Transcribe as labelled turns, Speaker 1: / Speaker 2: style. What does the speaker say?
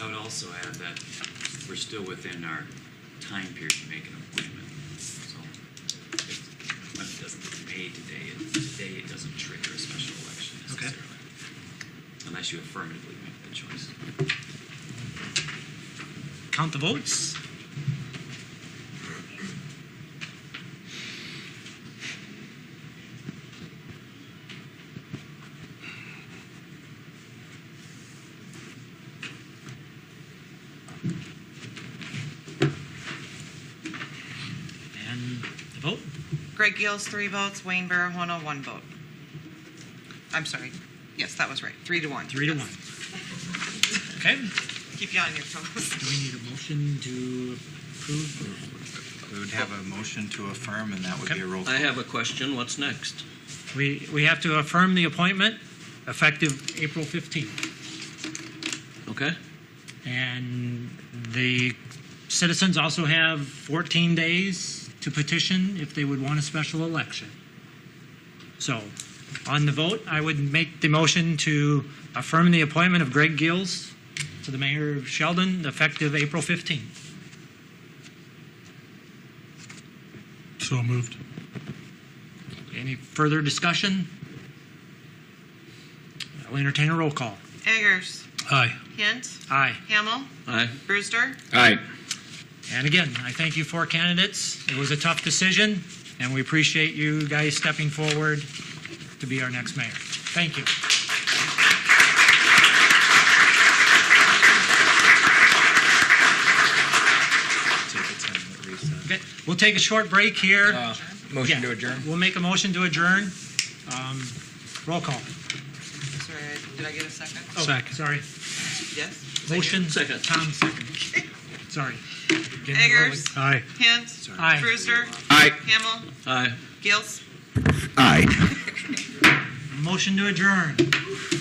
Speaker 1: I would also add that we're still within our time period to make an appointment. So if the appointment doesn't get made today, it- today it doesn't trigger a special election
Speaker 2: Okay.
Speaker 1: necessarily. Unless you affirmatively make that choice.
Speaker 2: Count the votes. And the vote.
Speaker 3: Greg Gills, three votes. Wayne Barahono, one vote. I'm sorry. Yes, that was right. Three to one.
Speaker 2: Three to
Speaker 3: Yes.
Speaker 2: one. Okay.
Speaker 3: Keep you on your toes.
Speaker 2: Do we need a motion to approve?
Speaker 4: We would have a motion to affirm, and that would be a roll call.
Speaker 5: I have a question. What's next?
Speaker 2: We, we have to affirm the appointment effective April 15th.
Speaker 5: Okay?
Speaker 2: And the citizens also have 14 days to petition if they would want a special election. So, on the vote, I would make the motion to affirm the appointment of Greg Gills to the mayor of Sheldon effective April 15th.
Speaker 6: So moved.
Speaker 2: Any further discussion? I'll entertain a roll call.
Speaker 3: Eggers,
Speaker 6: Aye.
Speaker 3: Hint,
Speaker 2: Aye.
Speaker 3: Hamel,
Speaker 5: Aye.
Speaker 3: Brewster.
Speaker 7: Aye.
Speaker 2: And again, I thank you four candidates. It was a tough decision, and we appreciate you guys stepping forward to be our next mayor. Thank you.
Speaker 4: Take a 10-minute recess.
Speaker 2: Okay, We'll take a short break here.
Speaker 7: Motion
Speaker 2: Yeah,
Speaker 7: to adjourn?
Speaker 2: We'll make a motion to adjourn. Um, Roll call.
Speaker 3: Sorry, did I get a second?
Speaker 2: Oh,
Speaker 6: Second.
Speaker 2: Sorry.
Speaker 3: Yes.
Speaker 2: Motion.
Speaker 5: Second.
Speaker 2: Tom, second. Sorry. Getting
Speaker 3: Eggers,
Speaker 6: Aye.
Speaker 3: Hint,
Speaker 2: Aye.
Speaker 3: Brewster,
Speaker 7: Aye.
Speaker 3: Hamel,
Speaker 5: Aye.
Speaker 3: Gills.
Speaker 7: Aye.
Speaker 2: early. Motion to adjourn.